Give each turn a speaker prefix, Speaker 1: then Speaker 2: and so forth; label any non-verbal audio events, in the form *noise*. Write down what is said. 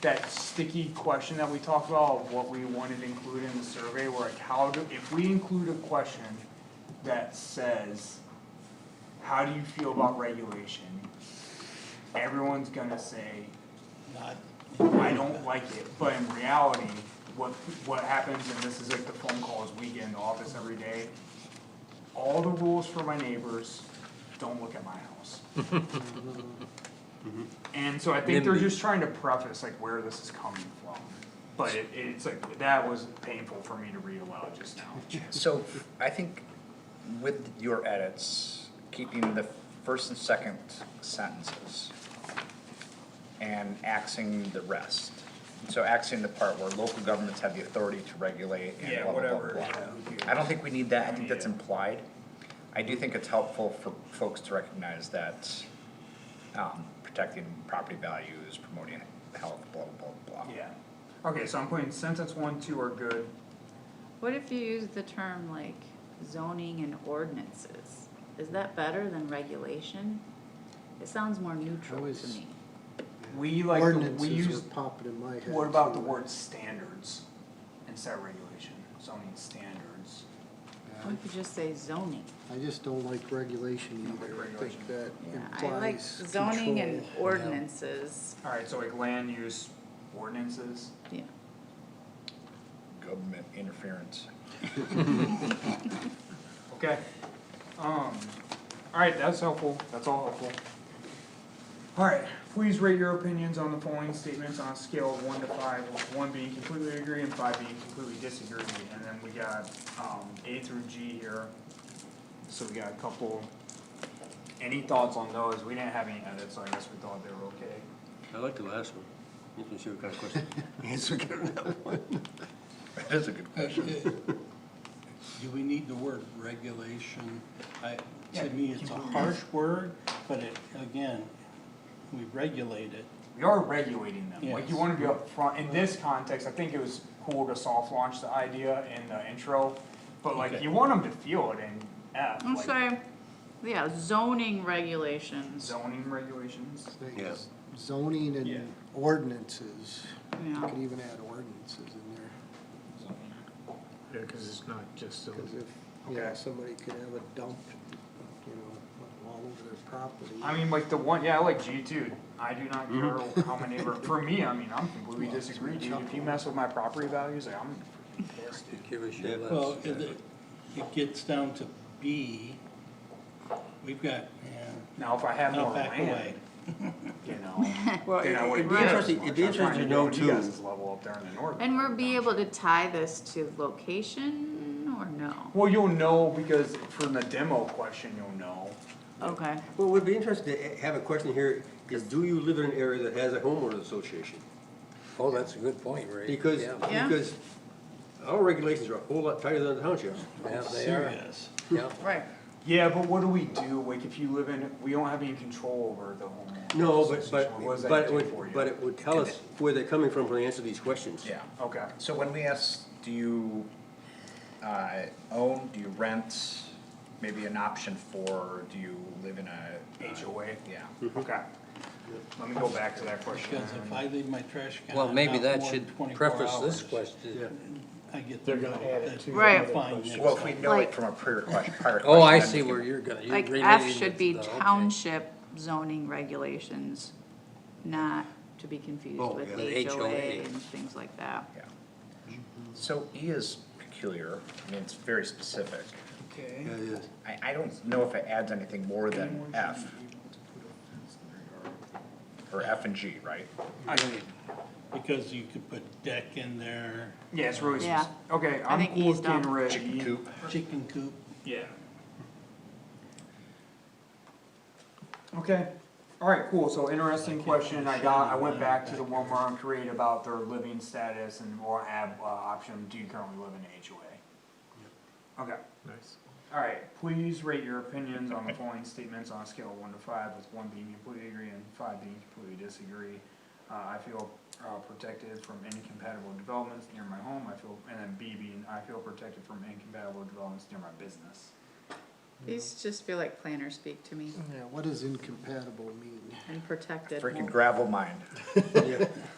Speaker 1: that sticky question that we talked about, of what we wanted included in the survey, where like, how do, if we include a question that says, how do you feel about regulation? Everyone's gonna say,
Speaker 2: Not,
Speaker 1: I don't like it, but in reality, what, what happens, and this is like the phone calls we get in the office every day, all the rules for my neighbors, don't look at my house. And so I think they're
Speaker 3: NIMBY.
Speaker 1: just trying to preface like where this is coming from, but it, it's like, that was painful for me to read aloud just
Speaker 4: *laughs*
Speaker 1: now.
Speaker 4: So I think with your edits, keeping the first and second sentences and axing the rest. So axing the part where local governments have the authority to regulate and
Speaker 1: Yeah,
Speaker 4: blah, blah, blah,
Speaker 1: whatever,
Speaker 4: blah.
Speaker 1: yeah, who cares?
Speaker 4: I don't think we need that, I think that's
Speaker 1: Yeah.
Speaker 4: implied. I do think it's helpful for folks to recognize that um, protecting property values, promoting health, blah, blah, blah, blah.
Speaker 1: Yeah, okay, so I'm putting sentence one, two are good,
Speaker 5: What if you use the term like zoning and ordinances? Is that better than regulation? It sounds more neutral
Speaker 2: I
Speaker 5: to
Speaker 2: was-
Speaker 5: me.
Speaker 1: we like, the- we
Speaker 2: ordinances
Speaker 1: use
Speaker 2: are popping in my head.
Speaker 1: What about the
Speaker 2: too.
Speaker 1: word standards instead of regulation, zoning standards?
Speaker 5: We
Speaker 2: Yeah,
Speaker 5: could just say zoning.
Speaker 2: I just don't like regulation
Speaker 1: don't like
Speaker 2: either, I
Speaker 1: regulation.
Speaker 2: think that
Speaker 5: Yeah, I like
Speaker 2: implies control.
Speaker 5: zoning and
Speaker 2: Yeah.
Speaker 5: ordinances,
Speaker 1: Alright, so like land use ordinances,
Speaker 5: yeah.
Speaker 4: Government interference. *laughs*
Speaker 1: okay. Um, alright, that's helpful, that's all helpful. Alright, please rate your opinions on the following statements on a scale of one to five, with one being completely agree and five being completely disagree. And then we got, um, A through G here, so we got a couple. Any thoughts on those? We didn't have any edits, so I guess we thought they were okay.
Speaker 3: I like the last one. This one's your kind of
Speaker 6: *laughs*
Speaker 3: question.
Speaker 4: That is a good question.
Speaker 7: Do we need the word regulation? I,
Speaker 1: Yeah,
Speaker 7: to me, it's a
Speaker 1: keep it
Speaker 7: harsh word, but it, again, we regulate it.
Speaker 1: we are regulating them, like you
Speaker 7: Yes.
Speaker 1: wanna be upfront, in this context, I think it was cool to soft launch the idea in the intro, but like,
Speaker 7: Okay.
Speaker 1: you want them to feel it in F,
Speaker 5: I'm
Speaker 1: like
Speaker 5: sorry, yeah, zoning regulations,
Speaker 1: zoning regulations.
Speaker 2: Things.
Speaker 3: Yeah.
Speaker 2: Zoning
Speaker 7: Yeah.
Speaker 2: and ordinances, you
Speaker 5: yeah.
Speaker 2: could even add ordinances in there,
Speaker 8: Yeah, cause it's not just,
Speaker 2: cause
Speaker 8: zoning.
Speaker 2: if, yeah,
Speaker 1: Okay.
Speaker 2: somebody could have a dump, you know, all over their property.
Speaker 1: I mean, like the one, yeah, I like G two, I do not care how many, of our- for me, I mean, I'm completely
Speaker 2: Well, it's
Speaker 1: disagree, dude, if you
Speaker 2: chuckle.
Speaker 1: mess with my property values, like, I'm freaking pissed, dude.
Speaker 3: Give us your last.
Speaker 7: Well, it, it gets down to B. We've got, yeah,
Speaker 1: Now, if I had more
Speaker 7: now back away.
Speaker 1: land, you
Speaker 5: *laughs*
Speaker 1: know,
Speaker 3: Well,
Speaker 1: then I
Speaker 3: it'd
Speaker 1: wouldn't
Speaker 3: be
Speaker 1: care as
Speaker 3: interesting,
Speaker 1: much,
Speaker 3: it'd be
Speaker 1: I'm trying
Speaker 3: interesting
Speaker 1: to
Speaker 3: to
Speaker 1: get
Speaker 3: know
Speaker 1: on you guys'
Speaker 3: too.
Speaker 1: level up there in the north.
Speaker 5: And we'll be able to tie this to location or no?
Speaker 1: Well, you'll know, because from the demo question, you'll know,
Speaker 5: Okay,
Speaker 3: Well, it would be interesting to have a question here, is do you live in an area that has a homeowners association?
Speaker 6: Oh, that's a good point, Ray.
Speaker 3: Because,
Speaker 6: Yeah,
Speaker 5: Yeah.
Speaker 3: because our regulations are a whole lot tighter than the townships.
Speaker 6: yeah, they are,
Speaker 7: Serious.
Speaker 6: yeah.
Speaker 5: right,
Speaker 1: Yeah, but what do we do, like, if you live in, we don't have any control over the homeowner.
Speaker 3: No, but,
Speaker 1: association. What does
Speaker 3: but,
Speaker 1: that
Speaker 3: but it
Speaker 1: do for you?
Speaker 3: would, but it would tell us where they're coming from when they answer these questions.
Speaker 4: Yeah.
Speaker 1: Okay,
Speaker 4: So when we ask, do you uh, own, do you rent, maybe an option for, do you live in a? uh,
Speaker 1: HOA,
Speaker 4: Yeah.
Speaker 1: okay. Let me go back to that question.
Speaker 7: Because if I leave my trash can.
Speaker 6: Well, maybe
Speaker 7: out
Speaker 6: that
Speaker 7: more than
Speaker 6: should
Speaker 7: 24
Speaker 6: preface this
Speaker 7: hours,
Speaker 6: question.
Speaker 7: I get.
Speaker 8: They're gonna add it to the
Speaker 5: Right.
Speaker 4: Well, if we know
Speaker 5: Like-
Speaker 4: it from a prior question, prior question.
Speaker 6: Oh, I
Speaker 4: then we
Speaker 6: see
Speaker 4: can-
Speaker 6: where you're going.
Speaker 5: like F should be township zoning regulations, not to be confused
Speaker 6: Oh,
Speaker 5: with
Speaker 6: yeah, the
Speaker 5: HOA
Speaker 6: HOA.
Speaker 5: and things like that.
Speaker 4: Yeah. So E is peculiar, I mean, it's very specific.
Speaker 1: Okay.
Speaker 6: Yeah, yeah.
Speaker 4: I, I don't know if it adds anything more than F, or F and G, right?
Speaker 7: Because you could put deck in there,
Speaker 1: Yeah, it's really,
Speaker 5: Yeah.
Speaker 1: spec- okay, I'm
Speaker 5: think
Speaker 1: cool
Speaker 5: he's
Speaker 1: with getting
Speaker 5: done.
Speaker 1: rid of
Speaker 4: Chicken
Speaker 1: E.
Speaker 4: coop,
Speaker 7: chicken coop.
Speaker 1: Yeah. Okay, alright, cool, so interesting question, I got, I went back to the one where I'm created about their living status and we'll have, uh, option, do you currently live in a HOA? Okay.
Speaker 8: nice.
Speaker 1: Alright, please rate your opinions on the following statements on a scale of one to five, with one being completely agree and five being completely disagree. Uh, I feel, uh, protected from incompatible developments near my home, I feel, and then B being, I feel protected from incompatible developments near my business.
Speaker 5: These just feel like planner speak to me
Speaker 2: Yeah, what does incompatible mean?
Speaker 5: and protected.
Speaker 4: freaking gravel mine.